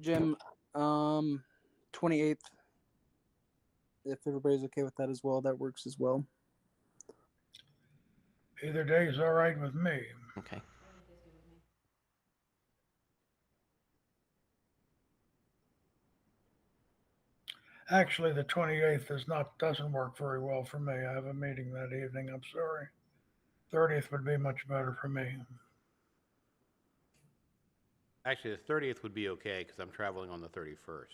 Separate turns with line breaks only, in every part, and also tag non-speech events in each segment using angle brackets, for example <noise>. Jim, um, 28th. If everybody's okay with that as well, that works as well.
Either day is all right with me.
Okay.
Actually, the 28th is not, doesn't work very well for me. I have a meeting that evening, I'm sorry. 30th would be much better for me.
Actually, the 30th would be okay because I'm traveling on the 31st.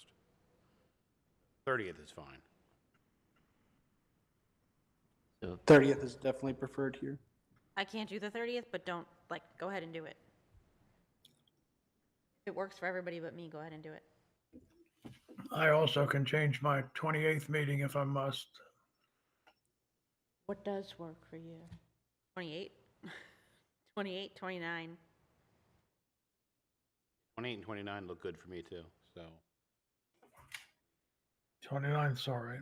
30th is fine.
So
30th is definitely preferred here.
I can't do the 30th, but don't, like, go ahead and do it. If it works for everybody but me, go ahead and do it.
I also can change my 28th meeting if I must.
What does work for you? <laughs> 28? 28, 29?
28 and 29 look good for me too, so.
29th's all right.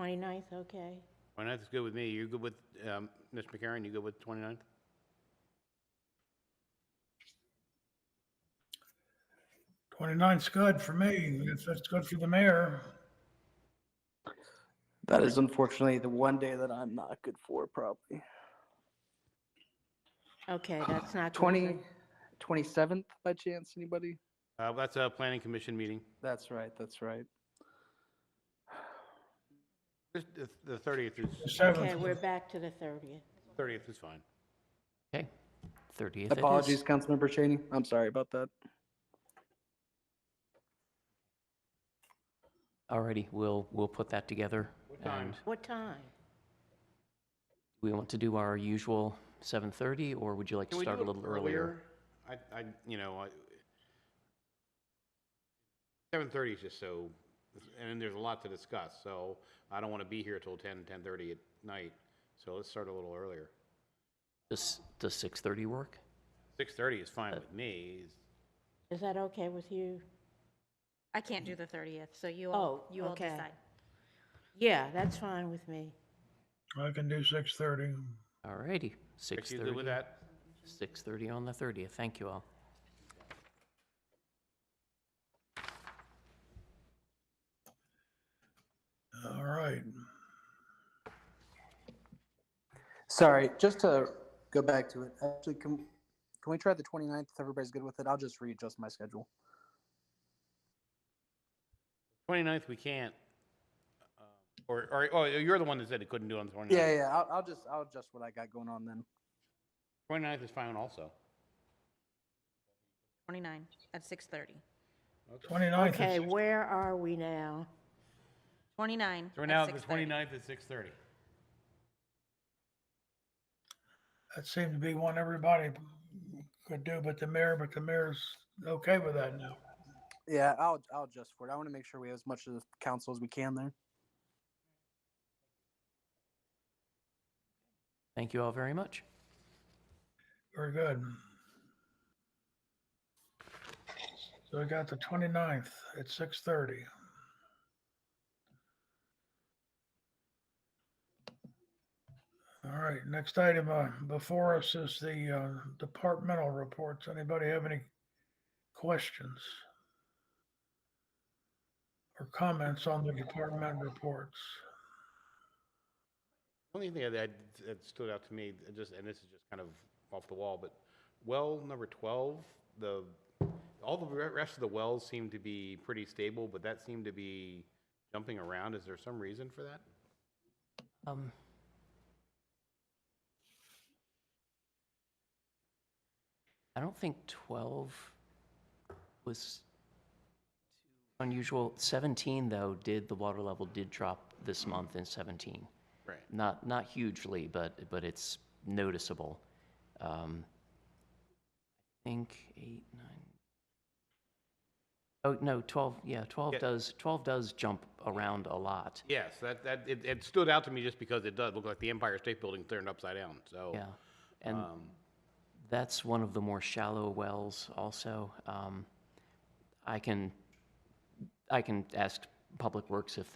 29th, okay.
29th is good with me. You good with, um, Ms. McCarron, you good with 29th?
Twenty-nine's good for me. It's, it's good for the mayor.
That is unfortunately the one day that I'm not good for, probably.
Okay, that's not good. for-
20, 27th by chance, anybody?
Uh, that's a planning commission meeting.
That's right, that's right.
This- The the 30th
The
is,
Okay,
7th,
we're
is-
back to the 30th.
30th is fine.
okay, thirtieth.
Apologies, Councilmember Cheney. I'm sorry about that.
Alrighty, we'll we'll put that together.
What time?
and
What time?
We want to do our usual seven thirty, or would you like to
Can we
start
do
a
it
little earlier?
I, I, you know, I, 7:30 is just so, and then there's a lot to discuss, so I don't want to be here till 10, 10:30 at night, so let's start a little earlier.
Does does six thirty work?
6:30 is
Uh,
fine with me.
Is that okay with you?
I can't do the 30th, so you all,
Oh,
you all
okay.
decide.
Yeah, that's fine with me.
I can do 6:30.
Alrighty,
Rick,
six
you good with
thirty.
that?
Six thirty on the thirtieth. Thank you all.
All right.
Sorry, just to go back to it, actually, can, can we try the 29th if everybody's good with it? I'll just readjust my schedule.
29th, we can't. Uh, Or, or, oh, you're the one that said it couldn't do it on the 29th.
Yeah, yeah, I'll, I'll just, I'll adjust what I got going on then.
29th is fine also.
29 at 6:30.
29th
Okay,
is,
where are we now?
29
So we're
at
now at the
6:30.
29th at 6:30.
that seemed to be one everybody could do, but the mayor, but the mayor's okay with that now.
Yeah, I'll, I'll adjust for it. I want to make sure we have as much of the council as we can there.
Thank you all very much.
Very good. So we got the 29th at 6:30. All right, next item uh, before us is the uh, departmental reports. Anybody have any questions? Or comments on the department reports?
Only thing that, that stood out to me, uh, just, and this is just kind of off the wall, but well number 12, the, all the re- rest of the wells seem to be pretty stable, but that seemed to be jumping around. Is there some reason for that?
Um, I don't think 12 was too unusual. 17, though, did, the water level did drop this month in 17.
Right.
Not, not hugely, but, but it's noticeable. Um, I think eight, nine. Oh, no, 12, yeah, 12
Yeah.
does, 12 does jump around a lot.
Yes, that, that, it, it stood out to me just because it does look like the Empire State Building turned upside down, so.
Yeah, and
um,
that's one of the more shallow wells also. Um, I can, I can ask Public Works if